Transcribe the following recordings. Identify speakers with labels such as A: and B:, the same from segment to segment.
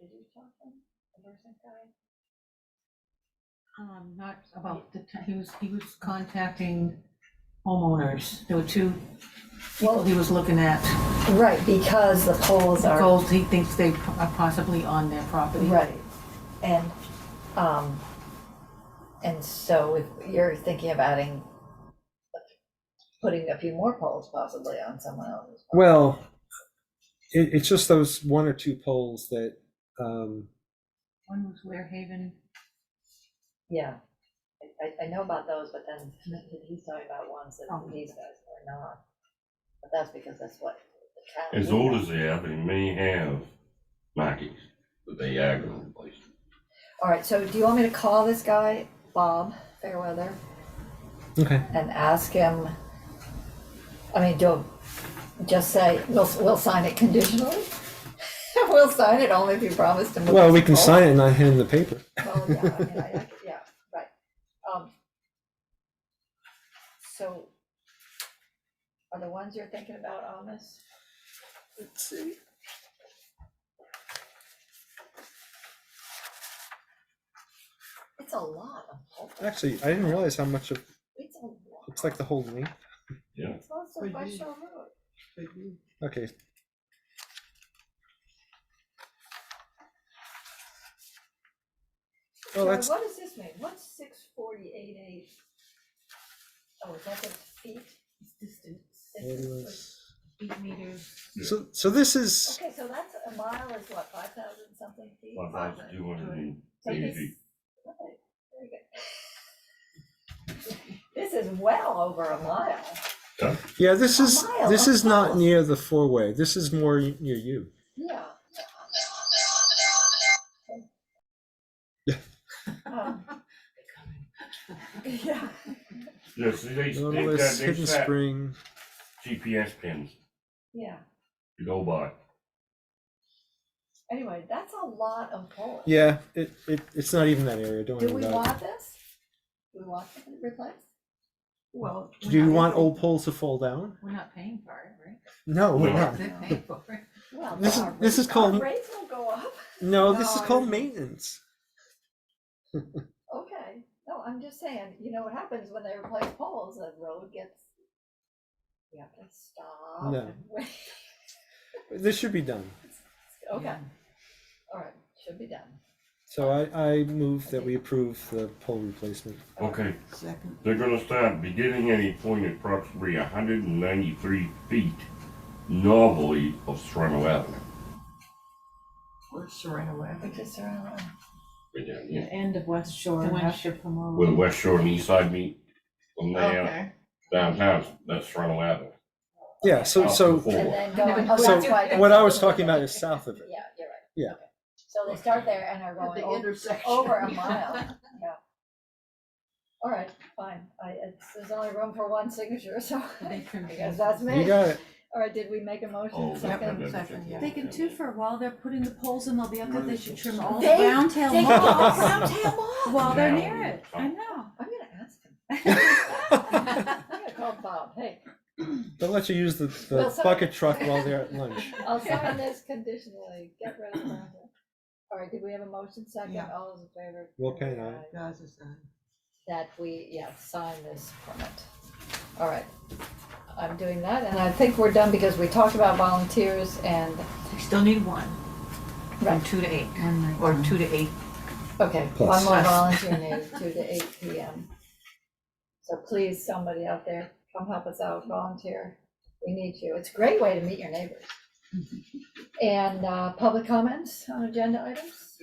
A: do something, the nursing guy?
B: Um, not about the, t- he was, he was contacting homeowners. There were two people he was looking at.
A: Right, because the poles are,
B: Goals he thinks they are possibly on their property.
A: right, and, um, and so if you're thinking of adding, putting a few more poles possibly on someone else's. property.
C: Well, it, it's just those one or two poles that, um,
B: One was Ware Haven.
A: Yeah, I, I, I know about those, but then he's talking about ones
B: Oh.
A: that these guys were not. But that's because that's what the town.
D: As old as they are, they may have markings, but they are going to place.
A: All right, so do you want me to call this guy, Bob Fairweather,
C: okay,
A: and ask him? I mean, do, just say, we'll, we'll sign it conditionally? We'll sign it only if you promise to move.
C: well, we can sign it and not hand the paper.
A: Well, yeah, I mean, I- I- yeah, right. Um, So are the ones you're thinking about on this?
C: Let's see.
A: It's a lot of pulp.
C: Actually, I didn't realize how much of,
A: It's a lot.
C: it's like the whole length.
A: It's also
E: But
A: by
E: you-
A: Shell Road.
E: But you,
C: Okay, Well,
A: Joey,
C: that's-
A: What does this mean? What's six forty-eight eight? Oh, is that the feet?
B: It's distance,
A: It's-
C: it was-
B: eight meters.
C: so, so this is,
A: Okay, so that's, a mile is what, five thousand something feet?
D: One thousand two hundred and
A: Take
D: eighty
A: this-
D: feet.
A: okay, very good. This is well over a mile.
C: yeah, this is,
A: A mile,
C: this
A: a
C: is not
A: mile.
C: near the four-way. This is more y- near you.
A: Yeah. Um, Yeah.
D: Yeah, see, they, they've got,
C: Nautilus,
D: they've
C: Hidden
D: set
C: Spring.
D: GPS pins
A: Yeah,
D: to go by.
A: anyway, that's a lot of poles.
C: Yeah, it, it, it's not even that area, don't
A: Do we
C: worry about it.
A: want this? Do we want to replace?
B: Well.
C: Do you want old poles to fall down?
B: We're not paying for it, right?
C: No, we're
D: No.
C: not.
B: They're paying for it.
A: Well,
C: This is-
A: our
C: this
A: rate-
C: is called-
A: our Rates will go up,
C: No, this is
A: No,
C: called
A: it's-
C: maintenance.
A: okay, no, I'm just saying, you know what happens when they replace poles, the road gets. We have to stop
C: No.
A: and wait,
C: This should be done.
A: okay,
B: Yeah.
A: all right, should be done.
C: So I, I move that we approve the pole replacement.
D: Okay,
E: second,
D: they're gonna start beginning at a point approximately hundred and ninety-three feet normally of Serrano Avenue.
E: where's Serrano
A: We
E: Avenue?
A: just around,
D: Right down here,
E: end of West Shore.
B: The one
E: not-
B: ship from all.
D: Where the West Shore and East Side meet, from there
E: Okay,
D: downtown, that's Serrano Avenue.
C: Yeah, so,
D: Up to
C: so
D: four.
A: and then going,
B: never-
A: oh,
B: So,
A: that's why.
C: what I was talking about is south of it.
A: Yeah, you're right.
C: Yeah.
A: Okay. So they start there and are
E: at
A: going
E: the
A: over,
E: intersection.
A: over a mile, yeah. All right, fine, I, it's, there's only room for one signature, so,
B: They trimmed
A: because
B: it.
A: that's
C: You
A: me.
C: got it.
A: All right, did we make a
D: Oh,
A: motion
D: that- that-
A: second?
D: that-
E: second,
D: that-
E: yeah.
F: They can too, for a while they're putting the poles in, they'll be up there, they should trim all the
A: They-
F: brown tail
A: They
C: all
A: all
F: moss
A: round town off.
F: while they're
D: Now
F: near
D: we
F: it,
D: talk.
F: I know.
A: I'm gonna ask him,
C: They'll
A: I'm gonna call Bob, hey,
C: let you use the,
A: Well,
C: the
A: so-
C: bucket truck while they're at lunch.
A: I'll sign this conditionally, get rid of that. All right, did we have a motion second,
E: Yeah.
A: all those in favor?
C: Will Kane, aye.
E: Gaza sign.
A: that we, yeah, sign this permit. All right, I'm doing that, and I think we're done because we talked about volunteers and,
B: We still need one, from
A: right,
B: two to eight, or two to eight.
A: okay, one
C: Plus.
A: more volunteer needed, two to eight P M. So please, somebody out there, come help us out, volunteer, we need you, it's a great way to meet your neighbors. And, uh, public comments on agenda items?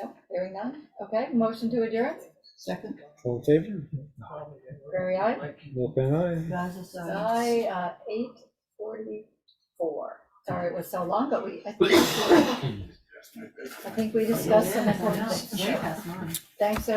A: Yep, hearing none, okay, motion to adjourn,
E: Second,
C: All in favor?
A: very aye.
C: Will Kane, aye.
E: Gaza sign.
A: By uh, eight forty-four. Sorry, it was so long, but we, I think- I think we discussed some important
F: Yeah,
A: things.
F: that's mine.
A: Thanks,